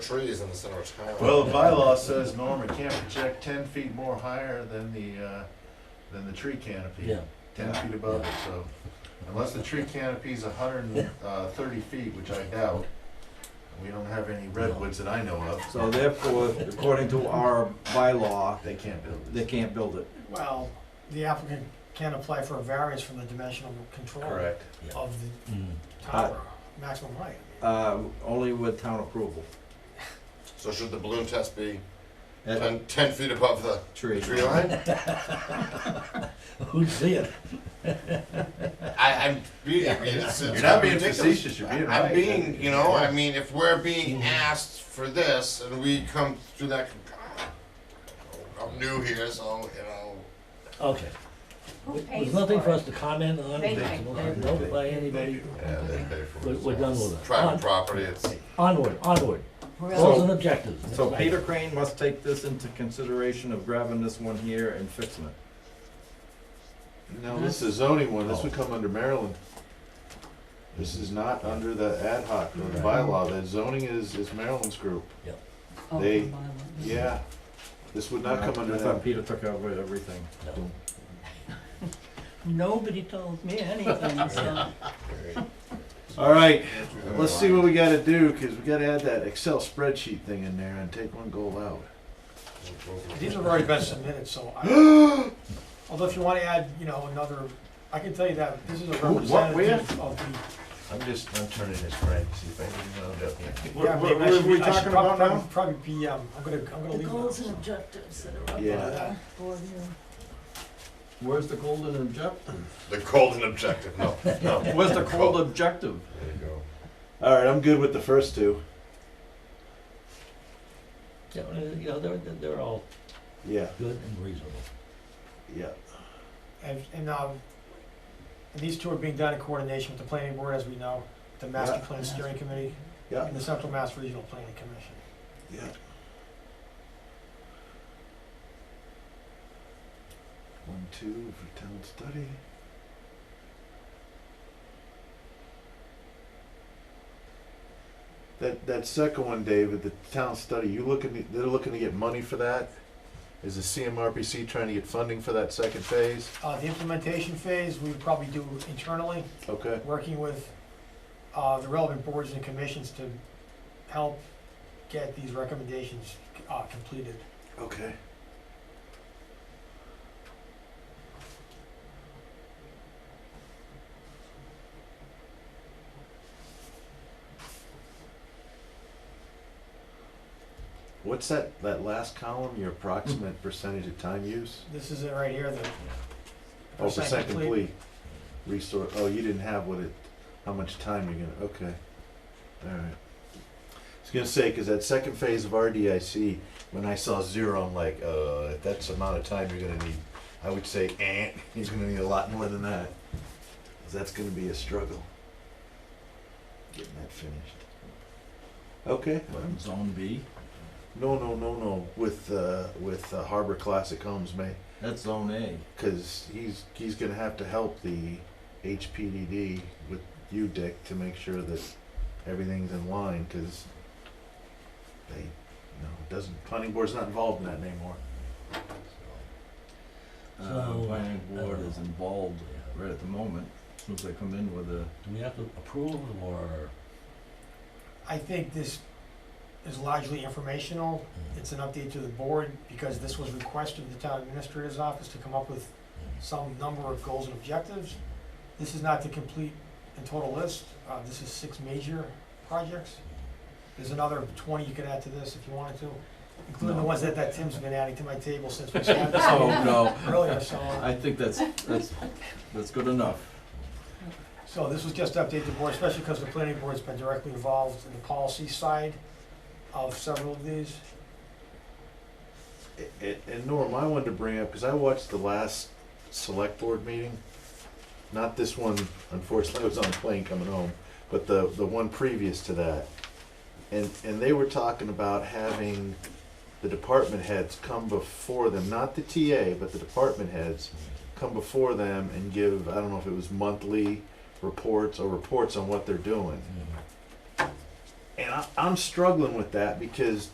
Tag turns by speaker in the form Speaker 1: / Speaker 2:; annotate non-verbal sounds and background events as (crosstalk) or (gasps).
Speaker 1: trees in the center of town.
Speaker 2: Well, the bylaw says, Norm, it can't project ten feet more higher than the, uh, than the tree canopy.
Speaker 3: Yeah,
Speaker 2: Ten feet above it, so unless the tree canopy's a hundred and uh, thirty feet, which I doubt, we don't have any redwoods that I know of,
Speaker 4: So therefore, according to our bylaw,
Speaker 2: they can't build
Speaker 4: they
Speaker 2: it.
Speaker 4: can't build it.
Speaker 5: Well, the applicant can apply for a variance from the dimensional control
Speaker 2: Correct.
Speaker 5: of
Speaker 3: Mm.
Speaker 5: the tower, maximum height.
Speaker 4: Uh, only with town approval.
Speaker 1: So should the balloon test be
Speaker 4: That
Speaker 1: ten, ten feet above the
Speaker 4: tree.
Speaker 1: tree line?
Speaker 3: Who'd see it?
Speaker 1: I, I'm being, it's, it's
Speaker 2: You're not being
Speaker 1: ridiculous.
Speaker 2: facetious, you're being right.
Speaker 1: I'm being, you know, I mean, if we're being asked for this and we come to that, con- I'm new here, so, you know,
Speaker 3: Okay,
Speaker 6: Who pays
Speaker 3: there's
Speaker 6: for it?
Speaker 3: nothing for us to comment on,
Speaker 6: They-
Speaker 3: there's no-
Speaker 6: they-
Speaker 3: no by anybody,
Speaker 2: Yeah, they pay for
Speaker 3: we're,
Speaker 2: it.
Speaker 3: we're done with it.
Speaker 1: private
Speaker 3: On-
Speaker 1: property, it's.
Speaker 3: Onward, onward,
Speaker 6: Really?
Speaker 3: goals and objectives.
Speaker 4: So Peter Crane must take this into consideration of grabbing this one here and fixing it.
Speaker 2: No, this is zoning one, this would
Speaker 3: Oh.
Speaker 2: come under Maryland. This is not under the ad hoc or the bylaw, that zoning is, is Maryland's group,
Speaker 6: Oh,
Speaker 2: They-
Speaker 6: my word.
Speaker 2: yeah. This would not come under
Speaker 4: Uh,
Speaker 2: that.
Speaker 4: I thought Peter took over everything.
Speaker 3: No.
Speaker 6: Nobody told me anything, so.
Speaker 2: All right, let's see what we gotta do, cause we gotta add that Excel spreadsheet thing in there and take one goal out.
Speaker 5: These have already been submitted, so I,
Speaker 3: (gasps)
Speaker 5: although if you wanna add, you know, another, I can tell you that this is a
Speaker 2: Who- what, where?
Speaker 5: representative of the.
Speaker 2: I'm just, I'm turning this right, see if I can round up
Speaker 5: What,
Speaker 2: what are we talking about now?
Speaker 5: Probably be, um, I'm gonna, I'm gonna
Speaker 6: (laughs) The
Speaker 5: leave.
Speaker 6: goals and
Speaker 5: that.
Speaker 6: objectives that are up
Speaker 2: Yeah.
Speaker 6: on the board here.
Speaker 4: Where's the golden objective?
Speaker 1: The golden objective, no, no. There (laughs)
Speaker 4: Where's the cold objective?
Speaker 1: you go.
Speaker 2: All right, I'm good with the first two.
Speaker 3: Yeah, You know, they're, they're- they're all
Speaker 2: Yeah,
Speaker 3: good and reasonable.
Speaker 2: yeah.
Speaker 5: And, and, um, and these two are being done in coordination with the planning board, as we know, the master
Speaker 2: Yeah.
Speaker 5: plan steering committee
Speaker 2: Yeah.
Speaker 5: and the central mass regional planning commission.
Speaker 2: Yeah. One, two for town study. That, that second one, David, the town study, you looking, to- they're looking to get money for that? Is the CMRPC trying to get funding for that second phase?
Speaker 5: Uh, the implementation phase, we would probably do internally,
Speaker 2: Okay,
Speaker 5: working with, uh, the relevant boards and commissions to help get these recommendations, uh, completed.
Speaker 2: okay. What's that, that last column, your approximate percentage of time use?
Speaker 5: This is it right here, the.
Speaker 2: Oh, percent
Speaker 5: complete.
Speaker 2: complete. Resource, oh, you didn't have what it, how much time you're gonna, okay. Alright. I was gonna say, cause that second phase of RDIC, when I saw zero, I'm like, uh, if that's the amount of time you're gonna need, I would say, eh, he's gonna need a lot more than that. 'Cause that's gonna be a struggle. Getting that finished. Okay.
Speaker 4: Zone B?
Speaker 2: No, no, no, no, with, uh, with uh, Harbor Classic Homes, mate.
Speaker 4: That's zone A.
Speaker 2: Because he's he's gonna have to help the HPDD with you, Dick, to make sure that everything's in line. Because they, no, it doesn't planning board's not involved in that anymore.
Speaker 4: Uh,
Speaker 3: So,
Speaker 4: planning
Speaker 3: I
Speaker 4: board
Speaker 3: don't
Speaker 4: is
Speaker 3: know.
Speaker 4: involved right at the moment, as soon as they come in with a.
Speaker 3: Do we have to approve or?
Speaker 5: I think this is largely informational. It's an update to the board because this was requested of the town administrator's office to come up with some number of goals and objectives. This is not the complete and total list. Uh, this is six major projects. There's another twenty you could add to this if you wanted to, including the ones that, that Tim's been adding to my table since we
Speaker 4: (laughs)
Speaker 5: started this
Speaker 4: (laughs) Oh, no,
Speaker 5: earlier, so. uh,
Speaker 4: I think that's, that's, that's good enough.
Speaker 5: So this was just to update the board, especially because the planning board's been directly involved in the policy side of several of these.
Speaker 2: A- a- And Norm, I wanted to bring up because I watched the last select board meeting. Not this one, unfortunately, I was on a plane coming home, but the the one previous to that. And and they were talking about having the department heads come before them, not the TA, but the department heads come before them and give, I don't
Speaker 3: Mm.
Speaker 2: know if it was monthly reports or reports on what they're doing. And I, I'm struggling with that because